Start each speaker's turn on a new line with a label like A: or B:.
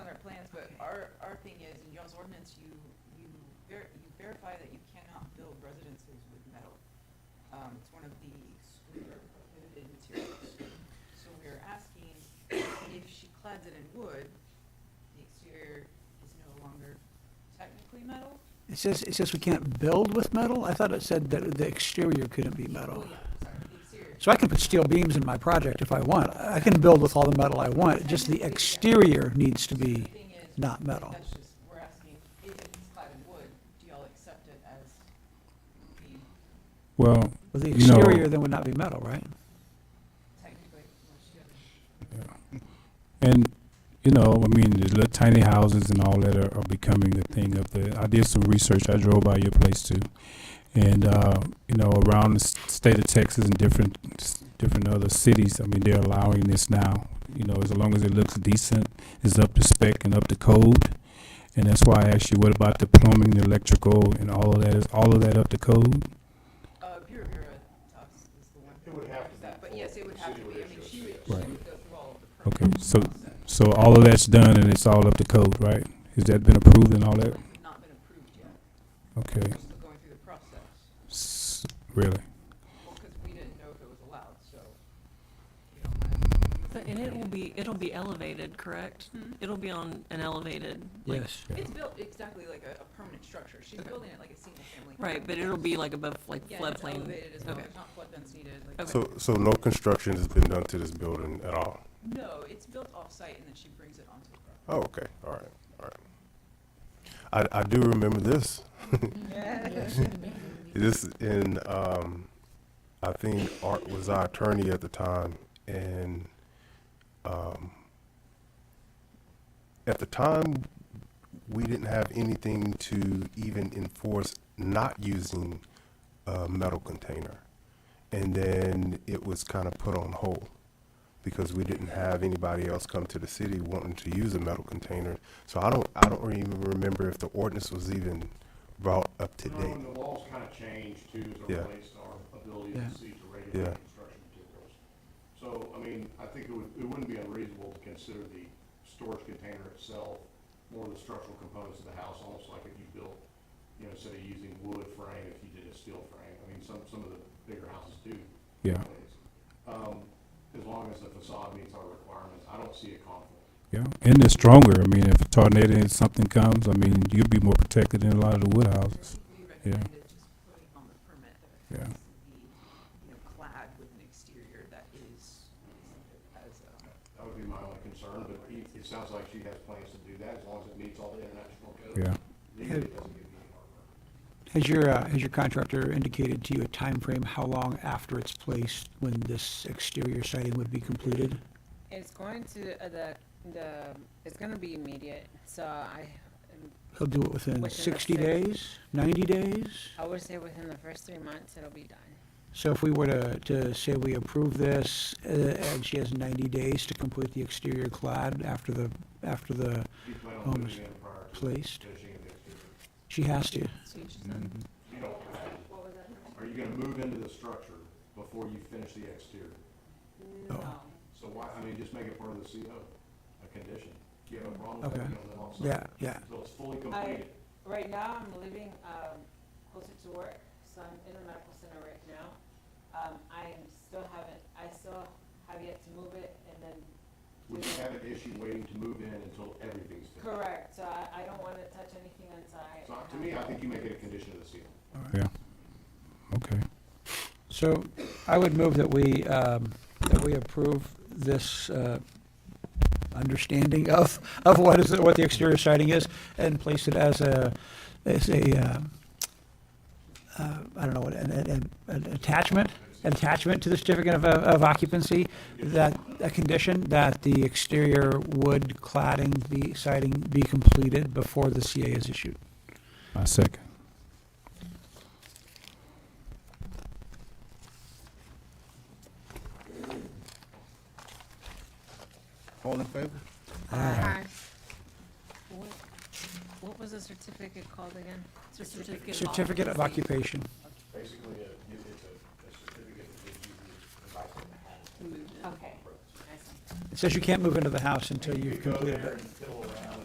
A: our thing is, in y'all's ordinance, you, you ver, you verify that you cannot build residences with metal. Um, it's one of the excluded prohibited materials. So we're asking if she clads it in wood, the exterior is no longer technically metal?
B: It says, it says we can't build with metal? I thought it said that the exterior couldn't be metal.
A: Oh, yeah, sorry, the exterior.
B: So I can put steel beams in my project if I want. I can build with all the metal I want, just the exterior needs to
A: The
B: be,
A: thing is,
B: not metal.
A: That's just, we're asking, if it's clad in wood, do y'all accept it as the
C: Well,
B: well, the
C: You know-
B: exterior then would not be metal, right?
A: technically, well, she doesn't.
C: and you know, I mean, the little tiny houses and all that are, are becoming the thing of the. I did some research. I drove by your place too, and uh, you know, around the s- state of Texas and different s- different other cities. I mean, they're allowing this now. You know, as long as it looks decent, it's up to spec and up to code. And that's why I asked you, what about the plumbing, the electrical, and all of that? Is all of that up to code?
A: Uh, Bureau Bureau Tufts is the one.
D: It would have to be
A: that- But
D: full.
A: yes, it would
D: The
A: have to
D: city
A: be,
D: would
A: I mean,
D: issue a
A: she would, she
D: CS.
A: would go through all of the.
C: Okay,
A: permits
C: so-
A: process.
C: So all of that's done and it's all up to code, right? Has that been approved and all that?
A: It's Not been approved yet,
C: Okay,
A: we're still going through the process,
C: S- really?
A: well, because we didn't know if it was allowed, so. we don't wanna-
E: But- And it will be, it'll be elevated, correct?
A: Hmm?
E: It'll be on an elevated, like,
B: Yes.
A: It's built exactly like a, a permanent structure, she's building it like a single family.
E: right, but it'll be like above, like
A: Yeah, and it's
E: floodplain.
A: elevated as well,
E: Okay.
A: there's not flood vents needed, like.
E: Okay.
D: So, so no construction has been done to this building at all?
A: No, it's built off-site and then she brings it onto the property.
D: Oh, okay, all right, all right. I, I do remember this. This in, um, I think Art was our attorney at the time and, um, at the time, we didn't have anything to even enforce not using a metal container. And then it was kind of put on hold because we didn't have anybody else come to the city wanting to use a metal container. So I don't, I don't even remember if the ordinance was even brought up to
F: No,
D: date.
F: and the laws kind of changed too, as
D: Yeah.
F: it relates to our ability
B: Yeah.
F: to see to
D: Yeah.
F: regulate construction materials. So, I mean, I think it would, it wouldn't be unreasonable to consider the storage container itself more the structural components of the house, almost like if you built, you know, instead of using wood frame, if you did a steel frame. I mean, some, some of the bigger houses do
C: Yeah,
F: nowadays. Um, as long as the facade meets our requirements, I don't see a conflict.
C: yeah. And it's stronger. I mean, if a tornado and something comes, I mean, you'd be more protected than a lot of the wood houses.
A: We recommended just putting on the permit that it
C: Yeah.
A: has to be, you know, clad with an exterior that is, as a.
F: That would be my only concern, but it, it sounds like she has plans to do that, as long as it meets all the international codes.
C: Yeah.
F: Legally, it doesn't give you any heartburn.
B: Has your, uh, has your contractor indicated to you a time frame? how long after it's placed when this exterior siding would be completed?
G: It's going to, uh, the, the, it's gonna be immediate, so I,
B: He'll do it within
G: Within the
B: sixty
G: six-
B: days, ninety days?
G: I would say within the first three months, it'll be done.
B: So if we were to, to say we approve this, uh, and she has ninety days to complete the exterior clad after the, after the
F: You plan on
B: home is
F: moving in prior to
B: placed,
F: finishing of the exterior.
B: she has to.
F: You don't, are you gonna move into the structure before you finish the exterior?
G: Um,
B: Oh.
F: So why, I mean, just make it part of the CO, a condition. Do you have a problem with
B: Okay.
F: that? You don't live on site.
B: Yeah, yeah.
F: Until it's fully completed.
G: Right now, I'm living, um, closer to work, so I'm in the medical center right now. Um, I am still haven't, I still have yet to move it and then
F: Would you have an issue waiting to move in until everything's finished?
G: correct, so I, I don't wanna touch anything until I.
F: So to me, I think you make it a condition of the CO.
C: Yeah. Okay.
B: So I would move that we, um, that we approve this, uh, understanding of, of what is, what the exterior siding is and place it as a, as a, uh, uh, I don't know, an, an, an attachment, attachment to the certificate of, uh, of occupancy, that, a condition that the exterior wood cladding, the siding be completed before the CA is issued.
C: I second.
H: All in favor?
G: Um, What, what was the certificate called again?
E: It's a certificate of
B: Certificate of
E: occupancy.
B: occupation.
F: Basically, a, it's a, a certificate that gives you the advice on the house.
G: Okay. I see.
B: It says you can't move into the house until you've completed it.
F: and